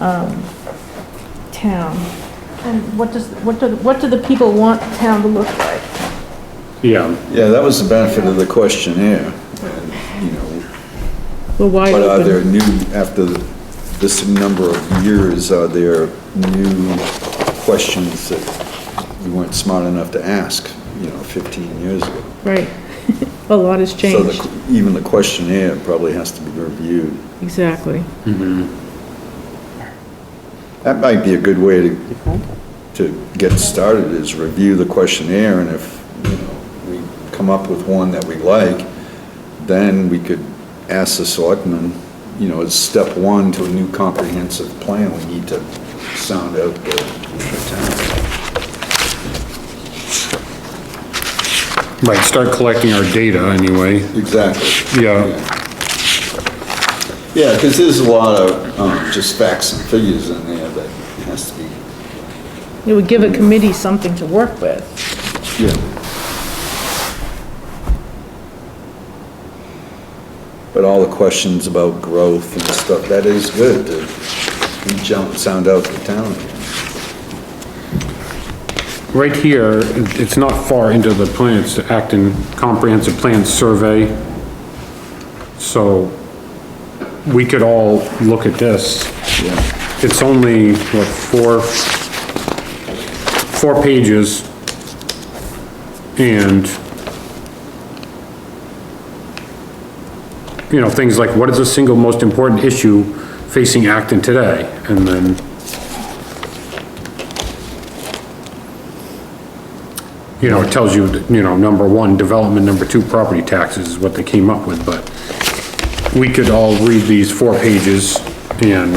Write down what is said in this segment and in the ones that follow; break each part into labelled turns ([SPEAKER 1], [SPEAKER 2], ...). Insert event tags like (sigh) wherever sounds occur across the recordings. [SPEAKER 1] um, town? And what does, what do, what do the people want town to look like?
[SPEAKER 2] Yeah,
[SPEAKER 3] Yeah, that was the benefit of the questionnaire, and, you know,
[SPEAKER 1] Well, why
[SPEAKER 3] but uh, are there
[SPEAKER 1] open?
[SPEAKER 3] new, after this number of years, are there new questions that we weren't smart enough to ask, you know, 15 years ago?
[SPEAKER 1] Right. A lot has
[SPEAKER 3] So
[SPEAKER 1] changed.
[SPEAKER 3] the- even the questionnaire probably has to be reviewed.
[SPEAKER 1] Exactly.
[SPEAKER 3] That might be a good way to, to get started, is review the questionnaire, and if, you know, we come up with one that we like, then we could ask the selectmen, you know, as step one to a new comprehensive plan, we need to sound out the the town.
[SPEAKER 2] right, start collecting our data anyway.
[SPEAKER 3] Exactly.
[SPEAKER 2] Yeah,
[SPEAKER 3] Yeah, because there's a lot of, um, just facts and figures in there that has to be,
[SPEAKER 1] It would give a committee something to work with.
[SPEAKER 3] yeah. But all the questions about growth and stuff, that is good to reach out and sound out the town.
[SPEAKER 2] right here, it's not far into the plan, it's the Acton Comprehensive Plan Survey. So we could all look at this.
[SPEAKER 3] Yeah.
[SPEAKER 2] It's only, what, four, four pages. And, you know, things like, what is the single most important issue facing Acton today? And then, you know, it tells you, that, you know, number one, development, number two, property taxes is what they came up with, but we could all read these four pages and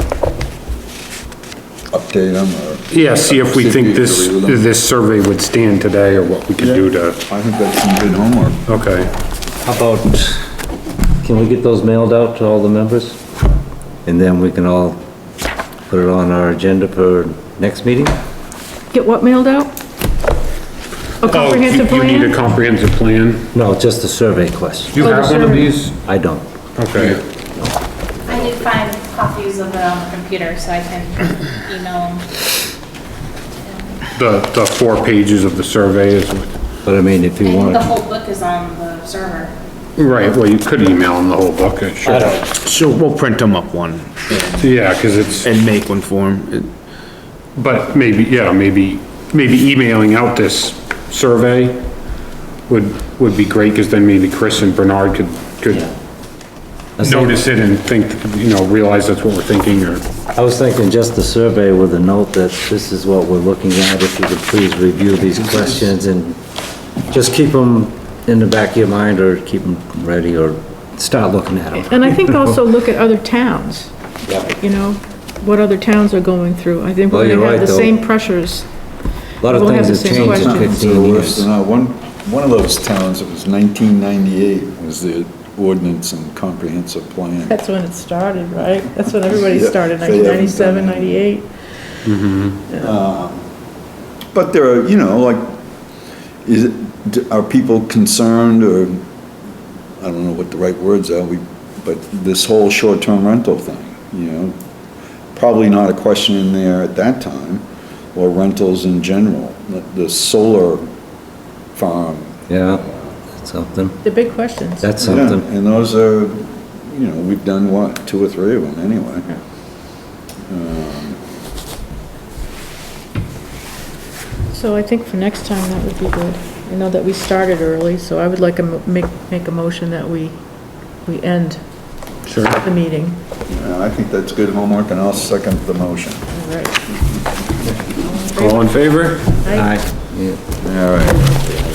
[SPEAKER 3] Update them or.
[SPEAKER 2] yeah, see if we think this,
[SPEAKER 3] See if you agree with them.
[SPEAKER 2] this survey would stand today or what we could do to,
[SPEAKER 3] I think that's some good homework.
[SPEAKER 2] okay.
[SPEAKER 4] How about, can we get those mailed out to all the members? And then we can all put it on our agenda for next meeting?
[SPEAKER 1] Get what mailed out? A
[SPEAKER 2] Oh, you-
[SPEAKER 1] comprehensive plan?
[SPEAKER 2] You need a comprehensive plan?
[SPEAKER 4] No, just the survey
[SPEAKER 2] Do
[SPEAKER 4] question.
[SPEAKER 2] you
[SPEAKER 1] Oh,
[SPEAKER 2] have one of
[SPEAKER 1] sure.
[SPEAKER 2] these?
[SPEAKER 4] I don't.
[SPEAKER 2] Okay.
[SPEAKER 5] I did find copies of it on the computer, so I can
[SPEAKER 4] (clears throat)
[SPEAKER 5] email them.
[SPEAKER 2] The, the four pages of the survey is, what-
[SPEAKER 4] But I mean, if
[SPEAKER 5] I
[SPEAKER 4] you
[SPEAKER 5] think
[SPEAKER 4] want,
[SPEAKER 5] the whole book is on the server.
[SPEAKER 2] right, well, you could email them the whole book, it should.
[SPEAKER 6] So we'll print them up one
[SPEAKER 2] Yeah, cause it's,
[SPEAKER 6] and make one for them.
[SPEAKER 2] but maybe, yeah, maybe, maybe emailing out this survey would, would be great, cause then maybe Chris and Bernard could, could
[SPEAKER 4] That's not-
[SPEAKER 2] notice it and think, you know, realize that's what we're thinking or,
[SPEAKER 4] I was thinking just the survey with a note that this is what we're looking at, if you could please review these questions and just keep them in the back of your mind or keep them ready or start looking at them.
[SPEAKER 1] And I think also look at other towns, you know, what other towns are going through. I think
[SPEAKER 4] Well,
[SPEAKER 1] we're
[SPEAKER 4] you're
[SPEAKER 1] gonna have
[SPEAKER 4] right,
[SPEAKER 1] the
[SPEAKER 4] though.
[SPEAKER 1] same pressures.
[SPEAKER 4] A lot of
[SPEAKER 1] We'll have
[SPEAKER 4] things
[SPEAKER 1] the
[SPEAKER 4] have
[SPEAKER 1] same
[SPEAKER 4] changed in
[SPEAKER 1] questions.
[SPEAKER 4] fifteen
[SPEAKER 3] Sometimes they're worse
[SPEAKER 4] years.
[SPEAKER 3] than that. One, one of those towns, it was 1998, was the ordinance and comprehensive plan.
[SPEAKER 1] That's when it started, right? That's when everybody
[SPEAKER 3] Yeah.
[SPEAKER 1] started,
[SPEAKER 3] They haven't done
[SPEAKER 1] 1997,
[SPEAKER 3] it.
[SPEAKER 1] 98.
[SPEAKER 3] But there are, you know, like, is it, d- are people concerned or, I don't know what the right words are, we, but this whole short-term rental thing, you know? Probably not a question in there at that time, or rentals in general, but the solar farm.
[SPEAKER 4] Yeah, that's something.
[SPEAKER 1] The big questions.
[SPEAKER 4] That's
[SPEAKER 3] yeah,
[SPEAKER 4] something.
[SPEAKER 3] And those are, you know, we've done what, two or three of them anyway.
[SPEAKER 1] So I think for next time, that would be good. I know that we started early, so I would like to mo- make, make a motion that we, we end
[SPEAKER 2] Sure.
[SPEAKER 1] the meeting.
[SPEAKER 3] Yeah, I think that's good homework, and I'll second the motion.
[SPEAKER 1] All right.
[SPEAKER 2] all in favor?
[SPEAKER 1] Aye.
[SPEAKER 4] Aye. Yeah.
[SPEAKER 3] All right.